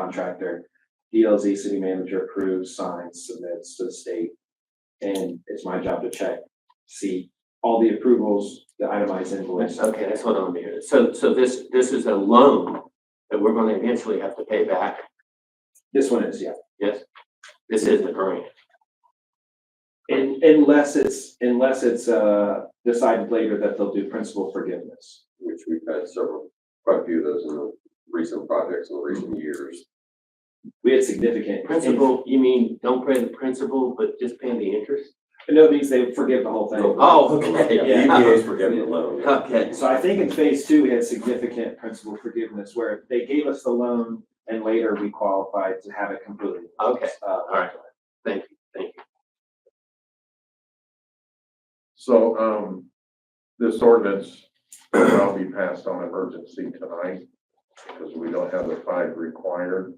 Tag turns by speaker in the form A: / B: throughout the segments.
A: contractor. DLZ city manager approves, signs, submits to the state. And it's my job to check, see all the approvals, the itemized invoice.
B: Okay, that's what I'm hearing. So, so this, this is a loan that we're gonna eventually have to pay back.
A: This one is, yeah.
B: Yes, this isn't a grant.
A: And unless it's, unless it's, uh, decided later that they'll do principal forgiveness.
C: which we've had several, quite a few of those in the recent projects in the recent years.
A: We had significant.
B: Principal, you mean, don't pay the principal, but just pay the interest?
A: No, these, they forgive the whole thing.
B: Oh, okay, yeah.
C: for getting the loan.
B: Okay,
A: So I think in phase two, we had significant principal forgiveness where they gave us the loan and later we qualified to have it completely.
B: Okay.
A: Uh, all
B: right. thank you, thank you.
D: So, um, this ordinance will now be passed on emergency tonight because we don't have the five required.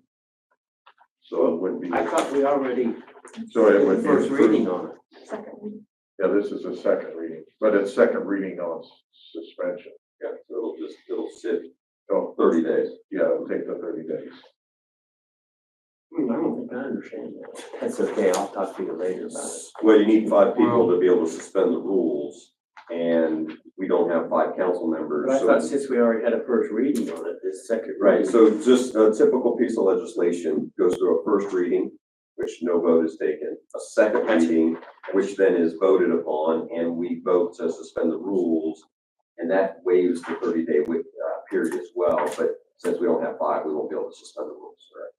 D: So it would be,
B: I thought we already.
D: so it would be
B: First reading
D: approved.
B: on it.
D: Yeah, this is a second reading, but it's second reading on s- suspension.
C: Yeah, so it'll just, it'll sit
D: So,
C: thirty days.
D: yeah, it'll take the thirty days.
B: Hmm, I don't think I understand that. That's okay, I'll talk to you later about it.
C: Well, you need five people to be able to suspend the rules, and we don't have five council
B: But
C: members,
B: I thought
C: so.
B: since we already had a first reading on it, this second.
C: Right,
B: reading-
C: so just a typical piece of legislation goes through a first reading, which no vote is taken, a second reading, which then is voted upon, and we vote to suspend the rules, and that waives the thirty-day wait, uh, period as well, but since we don't have five, we won't be able to suspend the rules, right?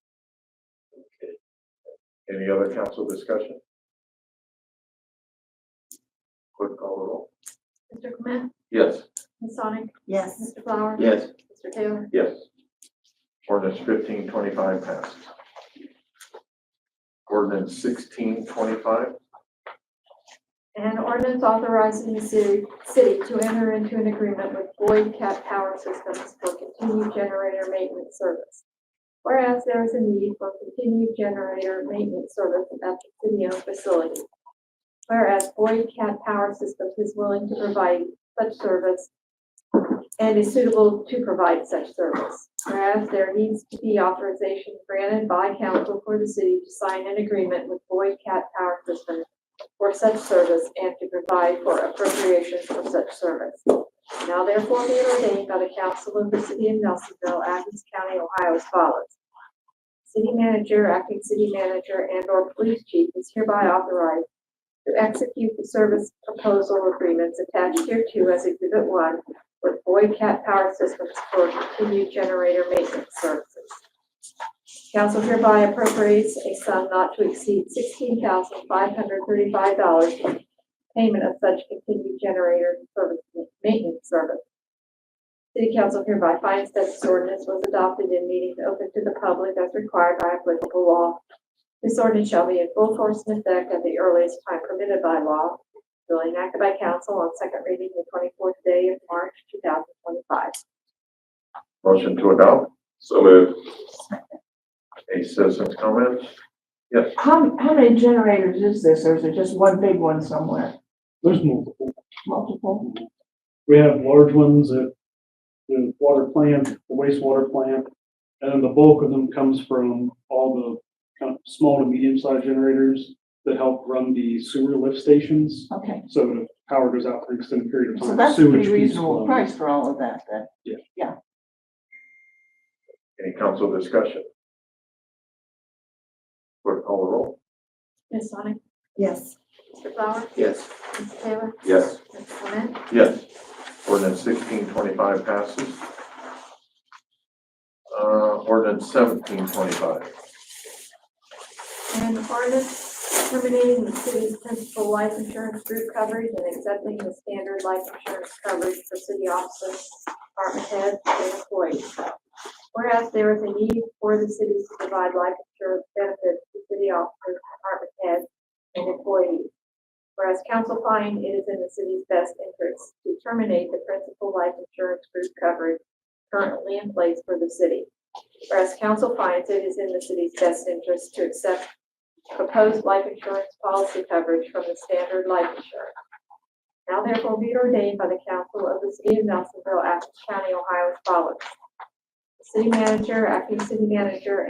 D: Any other council discussion? Clerk call the roll.
E: Mr. Clement,
D: Yes.
E: Ms. Sonic,
F: Yes,
E: Mr. Flower.
B: Yes.
E: Mr. Taylor.
D: Yes. Ordinance fifteen twenty-five passes. Ordinance sixteen twenty-five,
E: An ordinance authorizing the city, city to enter into an agreement with Boyd Cap Power Systems for continued generator maintenance service. Whereas there is a need for continued generator maintenance service at the city-owned facility. Whereas Boyd Cap Power Systems is willing to provide such service and is suitable to provide such service. Whereas there needs to be authorization granted by council for the city to sign an agreement with Boyd Cap Power Systems for such service and to provide for appropriations for such service. Now therefore be it ordained by the council of the city of Nelsonville, Athens County, Ohio as follows. City manager, acting city manager, and or police chief is hereby authorized to execute the service proposal agreements attached hereto as exhibit one with Boyd Cat Power Systems for continued generator maintenance services. Council hereby appropriates a sum not to exceed sixteen thousand five hundred thirty-five dollars for payment of such continued generator service, maintenance service. City council hereby finds that this ordinance was adopted in meetings open to the public as required by applicable law. This ordinance shall be in full force and effect at the earliest time permitted by law. Duly enacted by council on second reading the twenty-fourth day of March two thousand twenty-five.
D: motion to adopt,
C: So moved.
D: any citizens' comments? Yes,
G: How, how many generators is this, or is it just one big one somewhere?
H: There's multiple.
G: Multiple?
H: We have large ones at the water plant, the wastewater plant, and then the bulk of them comes from all the kind of small to medium-sized generators that help run the sewer lift stations.
G: Okay,
H: So that if power goes out for an extended period of time.
G: so that's a
H: Uh, sewage
G: pretty
H: keeps
G: reasonable
H: flowing.
G: price for all of that, then.
D: any council discussion? Clerk call the roll.
E: Ms. Sonic,
F: yes,
E: Mr. Flower,
B: Yes.
E: Mr. Taylor,
C: Yes.
E: Mr. Clement,
D: Yes. Ordinance sixteen twenty-five passes. Uh, ordinance seventeen twenty-five,
E: and ordinance terminating the city's principal life insurance group coverage and accepting the standard life insurance coverage for city officers, department heads, and employees. Whereas there is a need for the cities to provide life insurance benefits to city officers, department heads, and employees. Whereas council find it is in the city's best interest to terminate the principal life insurance group coverage currently in place for the city. Whereas council finds it is in the city's best interest to accept proposed life insurance policy coverage from the standard life insurance. Now therefore be it ordained by the council of the city of Nelsonville, Athens County, Ohio as follows. The City manager, acting city manager,